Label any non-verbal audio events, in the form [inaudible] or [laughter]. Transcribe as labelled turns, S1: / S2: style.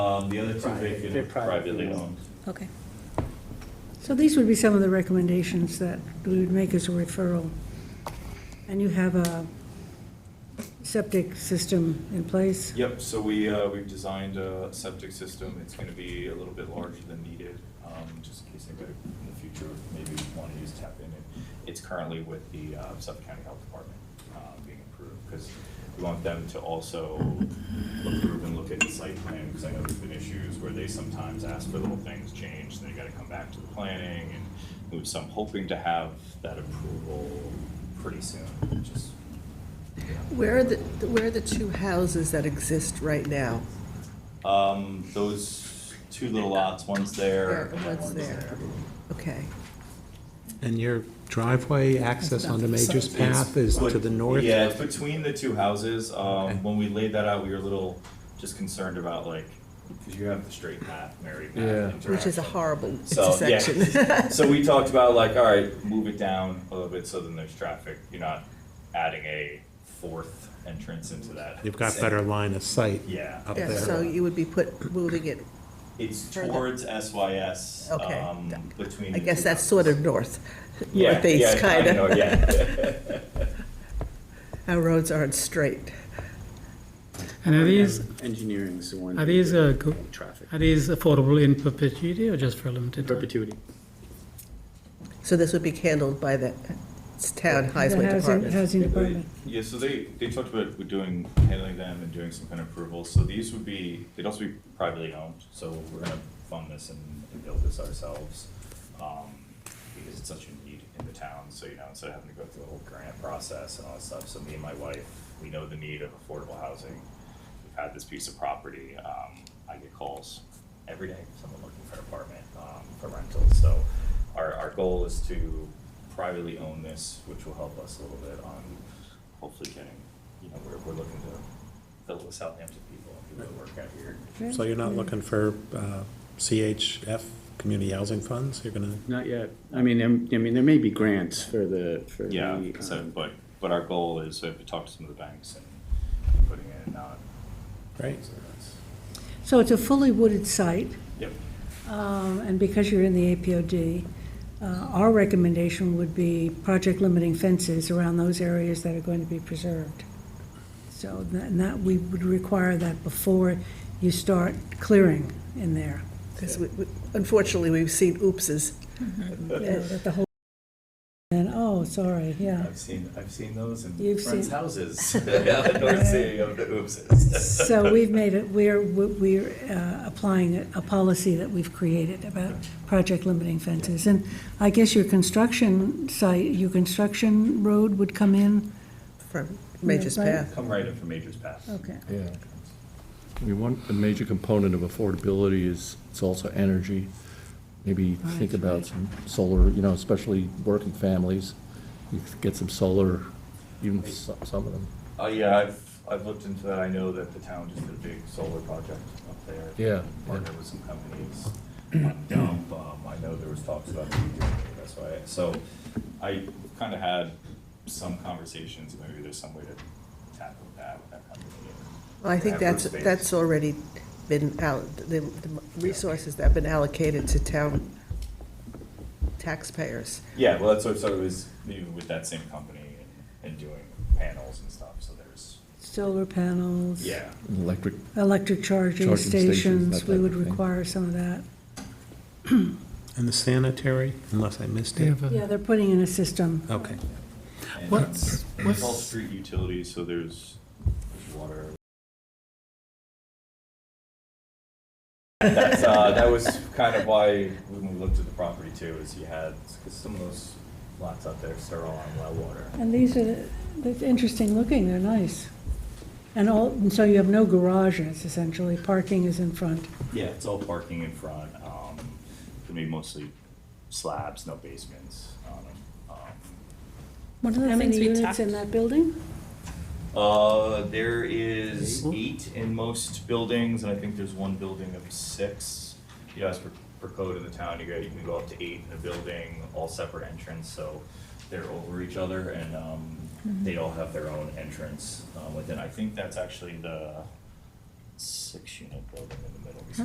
S1: Um, the other two vacant
S2: They're
S1: are
S2: privately
S1: privately
S2: owned.
S1: owned.
S3: Okay.
S4: So these would be some of the recommendations that we would make as a referral. And you have a septic system in place?
S1: Yep, so we, uh, we've designed a septic system, it's gonna be a little bit larger than needed, um, just in case anybody in the future maybe wanna use tap in. it. It's currently with the, uh, Suffolk County Health Department, uh, being approved, because we want them to also approve and look at the site plan, because I know there's been issues where they sometimes ask for little things changed, and they gotta come back to the planning and move, so I'm hoping to have that approval pretty soon, just, you know,
S5: Where are the, where are the two houses that exist right now?
S1: Um, those two little lots, one's there and then
S5: What's
S1: one's
S5: there?
S1: there.
S5: Okay.
S6: And your driveway access onto Major's Path is to the north?
S1: Yeah, it's between the two houses. Um, when we laid that out, we were a little just concerned about like, cause you have the straight path, Mary path
S6: Yeah.
S1: interaction.
S5: Which is a horrible
S1: So, yeah. [laughs]
S5: intersection.
S1: So we talked about like, all right, move it down a little bit so then there's traffic. You're not adding a fourth entrance into that.
S6: You've got better line of sight
S1: Yeah.
S6: up
S5: Yeah,
S6: there.
S5: So you would be put, moving it,
S1: It's
S5: Further.
S1: towards SYS,
S5: Okay.
S1: um, between.
S5: I
S1: the
S5: guess
S1: two
S5: that's
S1: houses.
S5: sort of north,
S1: Yeah,
S5: northeast,
S1: yeah, I
S5: kind
S1: know,
S5: of.
S1: Yeah.
S5: Our roads aren't straight.
S7: And are these,
S2: Engineering's the one.
S7: are these, uh, go-
S2: Traffic.
S7: are these affordable in perpetuity or just for a limited time?
S2: Perpetuity.
S5: So this would be handled by the town
S4: The
S5: highway
S4: housing-
S5: department.
S4: Housing
S1: Yeah, they-
S4: department.
S1: Yeah, so they, they talked about we're doing, handling them and doing some kind of approvals, so these would be, they'd also be privately owned, so we're gonna fund this and and build this ourselves. um, Because it's such a need in the town, so you know, instead of having to go through the whole grant process and all that stuff, so me and my wife, we know the need of affordable housing. We've had this piece of property, um, I get calls every day, someone looking for an apartment, um, for rental, so our, our goal is to privately own this, which will help us a little bit on hopefully getting, you know, we're, we're looking to fill it with Southampton people, and people that work out here.
S6: So you're not looking for uh, CHF, community housing funds? You're gonna,
S2: Not yet. I mean, I'm- I mean, there may be grants for the, for the.
S1: Yeah, so,
S2: um,
S1: but, but our goal is to talk to some of the banks and putting in, uh.
S6: great.
S1: so that's-
S4: So it's a fully wooded site,
S1: Yep,
S4: um, and because you're in the APOD, uh, our recommendation would be project limiting fences around those areas that are going to be preserved. So that, and that, we would require that before you start clearing in there.
S5: Because we- we- unfortunately, we've seen oopses.
S4: [laughs] Yeah, that the whole, and, oh, sorry, yeah.
S1: I've seen, I've seen those in
S4: You've
S1: friends'
S4: seen-
S1: houses, [laughs]
S4: [laughs]
S1: on the North Sea of the Oopses.
S4: So we've made it, we're, we're uh, applying a- a policy that we've created about project limiting fences. And I guess your construction site, your construction road would come in?
S5: from Major's
S4: Yeah, right.
S5: Path.
S1: Come right in from Major's Pass.
S4: Okay.
S8: Yeah. I mean, one, a major component of affordability is, it's also energy. Maybe think about some solar, you know, especially working families, you could get some solar, even so- some of them.
S1: Oh, yeah, I've, I've looked into that, I know that the town just did a big solar project up there.
S8: Yeah,
S1: Partnered with some companies, um, dump, um, I know there was talks about me doing it, that's why, I- so I kinda had some conversations, maybe there's some way to tackle that with that company.
S5: Well, I think
S1: Have
S5: that's,
S1: roof space.
S5: that's already been out, the the resources that have been allocated to town taxpayers.
S1: Yeah, well, that's what, so it was, maybe with that same company and, and doing panels and stuff, so there's,
S4: Solar panels.
S1: yeah.
S8: Electric,
S4: Electric charging
S8: Charging stations,
S4: stations,
S8: that
S4: we
S8: type
S4: would
S8: of thing.
S4: require some of that.
S6: And the sanitary, unless I missed
S7: Do you
S6: it?
S7: have a-
S4: Yeah, they're putting in a system.
S6: Okay.
S1: And
S7: What's-
S1: It's all street utilities, so there's there's water. That's, uh, that was kind of why when we looked at the property too, is you had, because some of those lots out there are all on well water.
S4: And these are, they're interesting looking, they're nice. And all, and so you have no garages essentially, parking is in front.
S1: Yeah, it's all parking in front, um, gonna be mostly slabs, no basements on them. Um,
S3: One of the
S4: How many
S3: things we
S4: units
S3: talked,
S4: in that building?
S1: Uh, there is eight in most buildings, and I think there's one building of six. You know, as per, per code in the town, you got, you can go up to eight in a building, all separate entrance, so they're over each other and, um, they all have their own entrance, um, within, I think that's actually the six-unit building in the middle.